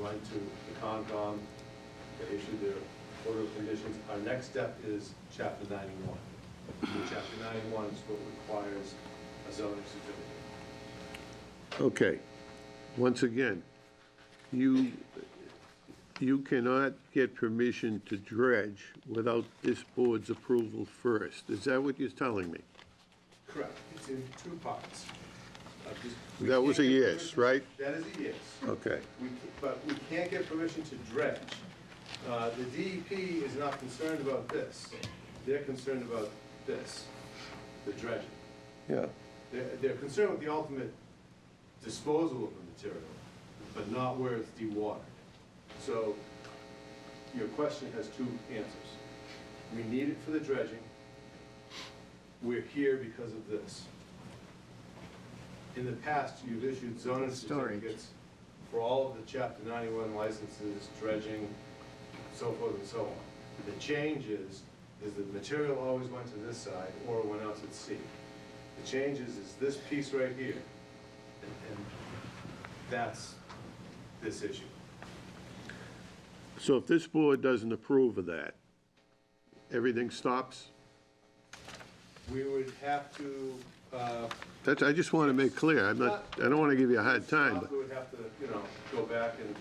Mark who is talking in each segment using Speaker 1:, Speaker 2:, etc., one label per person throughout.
Speaker 1: went to the Concom, they issued their order of conditions. Our next step is chapter ninety-one. And Chapter ninety-one is what requires a zoning certificate.
Speaker 2: Okay, once again, you, you cannot get permission to dredge without this board's approval first. Is that what you're telling me?
Speaker 1: Correct, it's in two parts. Uh, this- we
Speaker 2: That was a
Speaker 1: can't get
Speaker 2: yes,
Speaker 1: permission-
Speaker 2: right?
Speaker 1: That is a yes.
Speaker 2: Okay,
Speaker 1: We, but we can't get permission to dredge. Uh, The DEP is not concerned about this. They're concerned about this, the dredging.
Speaker 2: yeah,
Speaker 1: They're, they're concerned with the ultimate disposal of the material, but not where it's dewatered. So your question has two answers. We need it for the dredging. We're here because of this. In the past, you've issued zoning
Speaker 3: Storage.
Speaker 1: certificates for all of the chapter ninety-one licenses, dredging, so forth and so on. The change is, is the material always went to this side or went out at sea. The change is, is this piece right here, and and that's this issue.
Speaker 2: so if this board doesn't approve of that, everything stops?
Speaker 1: We would have to, uh,
Speaker 2: That's, I just want to make clear, I'm not, I don't want to give you a hard time,
Speaker 1: we would have to, you know, go back and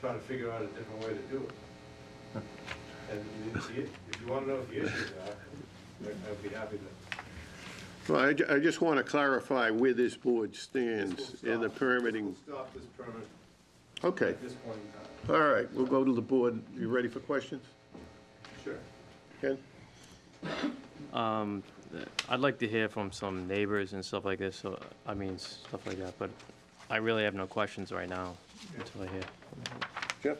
Speaker 1: try to figure out a different way to do it. And if you- if you want to know what the issues are, I'd- I'd be happy to.
Speaker 2: but, well, I, ju- I just want to clarify where this board stands in the
Speaker 1: Stop.
Speaker 2: permitting.
Speaker 1: Stop this permit
Speaker 2: Okay,
Speaker 1: at this point in time.
Speaker 2: all right, we'll go to the board. You ready for questions?
Speaker 1: Sure.
Speaker 2: Ken?
Speaker 4: Um, I'd like to hear from some neighbors and stuff like this, so, I mean, stuff like that, but I really have no questions right now until I hear.
Speaker 2: Jeff?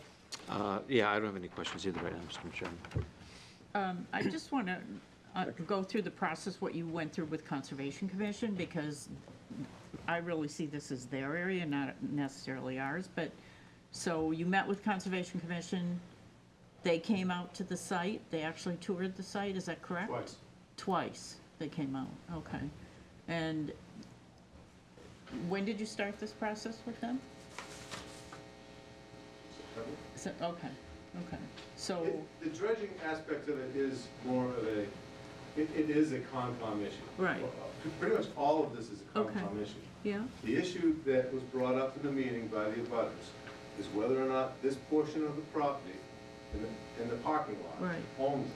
Speaker 5: Uh, Yeah, I don't have any questions either right now, Mr. Chairman.
Speaker 6: I just want to go through the process, what you went through with Conservation Commission, because I really see this as their area, not necessarily ours, but, so you met with Conservation Commission, they came out to the site, they actually toured the site, is that correct?
Speaker 1: Twice.
Speaker 6: Twice they came out, okay. And when did you start this process with them? So- Okay, okay, so.
Speaker 1: It- The dredging aspect of it is more of a, it, it is a Concom issue. uh,
Speaker 6: Right.
Speaker 1: Pretty much all of this is a
Speaker 6: Okay.
Speaker 1: Concom issue.
Speaker 6: Yeah,
Speaker 1: The issue that was brought up in the meeting by the abutters is whether or not this portion of the property in the, in the parking lot
Speaker 6: Right.
Speaker 1: only,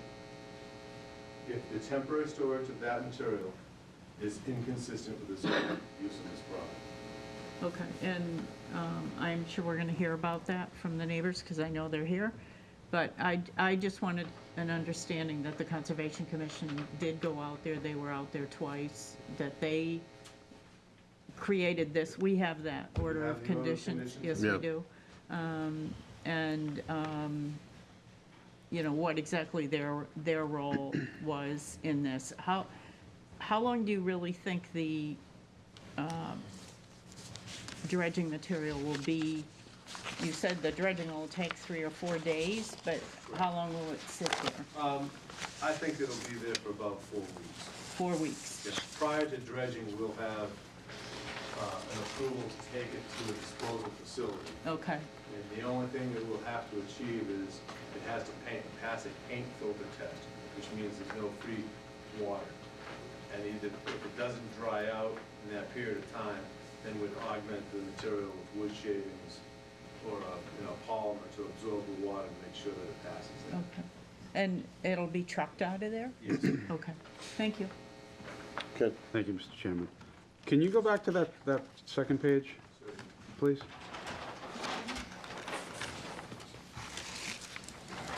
Speaker 1: if the temporary storage of that material is inconsistent with the zoning use of this property.
Speaker 6: okay, and um, I'm sure we're going to hear about that from the neighbors, because I know they're here. But I, I just wanted an understanding that the Conservation Commission did go out there, they were out there twice, that they created this, we have that order
Speaker 1: have
Speaker 6: of
Speaker 1: the order of
Speaker 6: conditions.
Speaker 1: conditions?
Speaker 6: Yes,
Speaker 2: Yeah.
Speaker 6: we do. Um, And, um, you know, what exactly their, their role was in this. How, how long do you really think the um, dredging material will be, you said the dredging will take three or four days, but how long will it sit there?
Speaker 1: Um, I think it'll be there for about four weeks.
Speaker 6: Four weeks?
Speaker 1: Yes, Prior to dredging, we'll have, uh, an approval to take it to a disposal facility.
Speaker 6: Okay,
Speaker 1: And the only thing that we'll have to achieve is it has to paint, pass a paint filter test, which means there's no free water. And either, if it doesn't dry out in that period of time, then we'd augment the material with wood shavings or, uh, you know, polymer to absorb the water and make sure that it passes that.
Speaker 6: okay. And it'll be trucked out of there?
Speaker 1: Yes.
Speaker 6: Okay, thank you.
Speaker 2: Ken?
Speaker 3: Thank you, Mr. Chairman. Can you go back to that, that second page, please?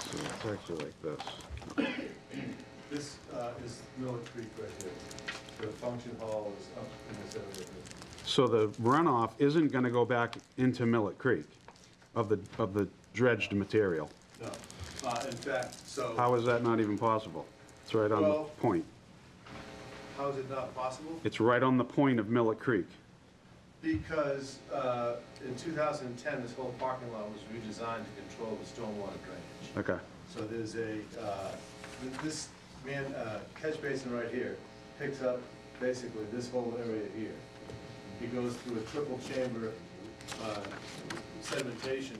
Speaker 3: So it's actually like this.
Speaker 1: This uh, is Miller Creek right here. The function hall is up in this area here.
Speaker 3: So the runoff isn't gonna go back into Millet Creek of the, of the dredged material.
Speaker 1: No, Uh, in fact, so.
Speaker 3: How is that not even possible? It's right on the
Speaker 1: Well-
Speaker 3: point.
Speaker 1: How is it not possible?
Speaker 3: It's right on the point of Millet Creek.
Speaker 1: Because uh, in 2010, this whole parking lot was redesigned to control the stormwater drainage.
Speaker 3: Okay,
Speaker 1: So there's a, uh, th- this man, uh, catch basin right here picks up basically this whole area here. He goes through a triple chamber uh, sedimentation